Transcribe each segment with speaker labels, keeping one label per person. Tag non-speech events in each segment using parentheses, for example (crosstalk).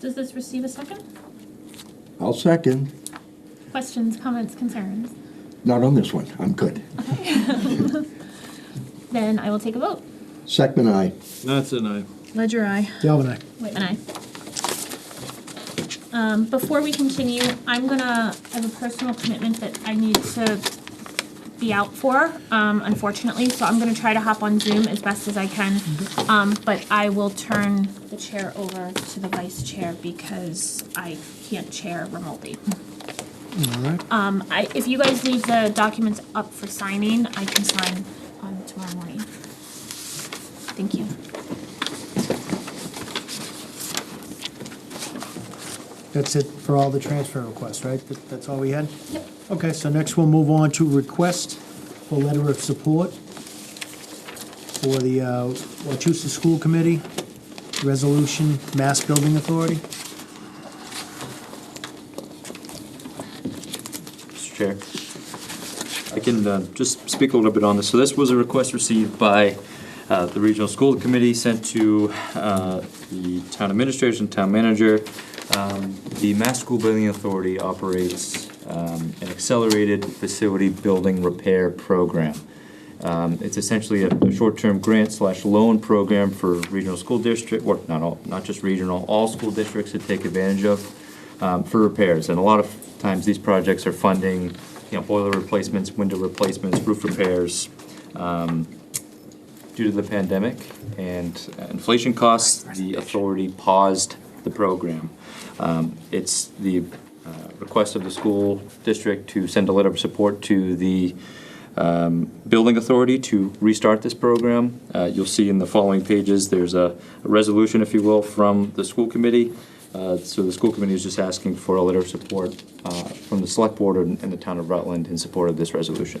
Speaker 1: Does this receive a second?
Speaker 2: I'll second.
Speaker 1: Questions, comments, concerns?
Speaker 2: Not on this one. I'm good.
Speaker 1: Then I will take a vote.
Speaker 2: Second, I.
Speaker 3: That's an aye.
Speaker 4: Ledger I.
Speaker 5: Galvin I.
Speaker 1: Wait, and I. Um, before we continue, I'm gonna, I have a personal commitment that I need to be out for, um, unfortunately, so I'm gonna try to hop on Zoom as best as I can.
Speaker 5: Mm-hmm.
Speaker 1: Um, but I will turn the chair over to the vice chair because I can't chair remotely.
Speaker 5: All right.
Speaker 1: Um, I, if you guys leave the documents up for signing, I can sign on tomorrow morning. Thank you.
Speaker 5: That's it for all the transfer requests, right? That- That's all we had?
Speaker 1: Yep.
Speaker 5: Okay, so next we'll move on to request for letter of support for the uh, Wachusett School Committee, Resolution Mass Building Authority.
Speaker 6: Mr. Chair. I can uh, just speak a little bit on this. So this was a request received by uh, the Regional School Committee, sent to uh, the town administration, town manager. Um, The Mass School Building Authority operates um, an accelerated facility building repair program. Um, It's essentially a a short-term grant slash loan program for regional school district, or not all, not just regional, all school districts to take advantage of um, for repairs. And a lot of times, these projects are funding, you know, boiler replacements, window replacements, roof repairs, um, due to the pandemic and inflation costs, the authority paused the program. Um, It's the uh, request of the school district to send a letter of support to the um, building authority to restart this program. Uh, You'll see in the following pages, there's a a resolution, if you will, from the school committee. Uh, So the school committee is just asking for a letter of support uh, from the select board and and the town of Rutland in support of this resolution.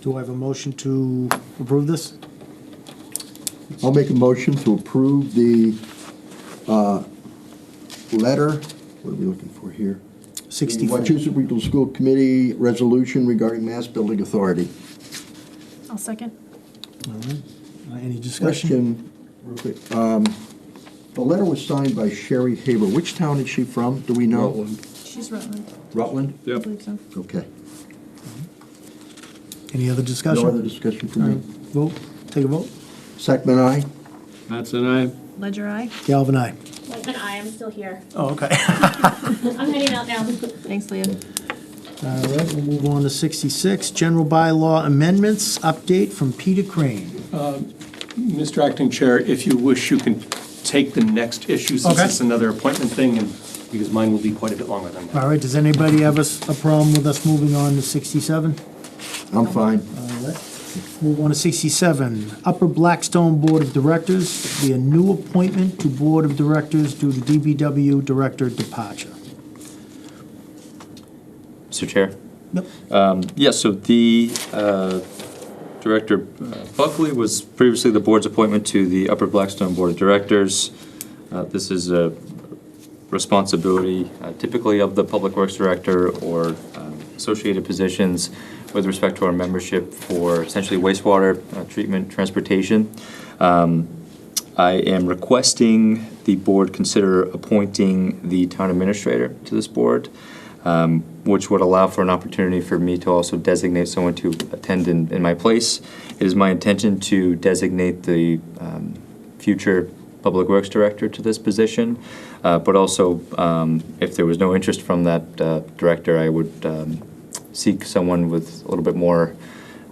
Speaker 5: Do I have a motion to approve this?
Speaker 2: I'll make a motion to approve the uh, letter, what are we looking for here?
Speaker 5: 64.
Speaker 2: Wachusett Regional School Committee resolution regarding mass building authority.
Speaker 1: I'll second.
Speaker 5: All right. Uh, Any discussion?
Speaker 2: Question, real quick. Um, The letter was signed by Sherry Haber. Which town is she from? Do we know? Rutland.
Speaker 4: She's Rutland,
Speaker 2: Rutland?
Speaker 4: I
Speaker 3: Yep.
Speaker 4: believe so.
Speaker 2: Okay.
Speaker 5: Any other
Speaker 2: No
Speaker 5: discussion?
Speaker 2: other discussion
Speaker 5: All
Speaker 2: from
Speaker 5: right,
Speaker 2: me.
Speaker 5: vote, take a vote.
Speaker 2: Second, I.
Speaker 3: That's an aye.
Speaker 4: Ledger I.
Speaker 5: Galvin I.
Speaker 1: Wait, and I am still here.
Speaker 5: Oh, okay. (laughs)
Speaker 1: I'm heading out now.
Speaker 4: Thanks, Leah.
Speaker 5: All right, we'll move on to 66, general bylaw amendments, update from Peter Crane.
Speaker 7: Mr. Acting Chair, if you wish, you can take the next issue, since
Speaker 5: Okay.
Speaker 7: it's another appointment thing, and because mine will be quite a bit longer than that.
Speaker 5: All right, does anybody have a s- a problem with us moving on to 67?
Speaker 2: I'm fine.
Speaker 5: All right, move on to 67. Upper Blackstone Board of Directors, be a new appointment to Board of Directors due to DBW Director departure.
Speaker 6: Mr. Chair?
Speaker 5: Yep.
Speaker 6: Yes, Um, so the uh, Director uh, Buckley was previously the board's appointment to the Upper Blackstone Board of Directors. Uh, This is a responsibility uh, typically of the Public Works Director or um, associated positions with respect to our membership for essentially wastewater uh, treatment, transportation. Um, I am requesting the board consider appointing the town administrator to this board, um, which would allow for an opportunity for me to also designate someone to attend in, in my place. It is my intention to designate the um, future public works director to this position, uh, but also um, if there was no interest from that uh, director, I would um, seek someone with a little bit more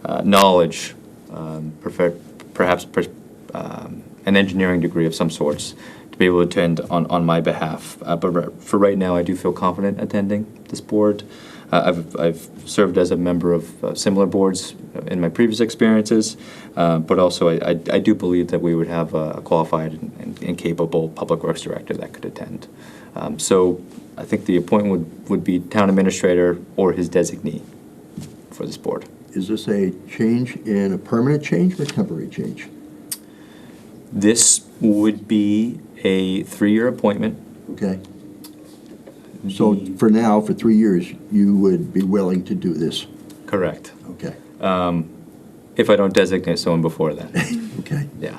Speaker 6: uh, knowledge, um, prefer- perhaps per- um, an engineering degree of some sorts, to be able to attend on, on my behalf. Uh, but ri- for right now, I do feel confident attending this board. Uh, I've, I've served as a member of uh, similar boards in my previous experiences, uh, but also I, I, I do believe that we would have a qualified and, and capable public works director that could attend. Um, so I think the appointment would, would be town administrator or his designee for this board.
Speaker 2: Is this a change in a permanent change or a temporary change?
Speaker 6: This would be a three-year appointment.
Speaker 2: Okay. So for now, for three years, you would be willing to do this?
Speaker 6: Correct.
Speaker 2: Okay,
Speaker 6: If I don't designate someone before that,
Speaker 2: (laughs) okay.
Speaker 6: yeah.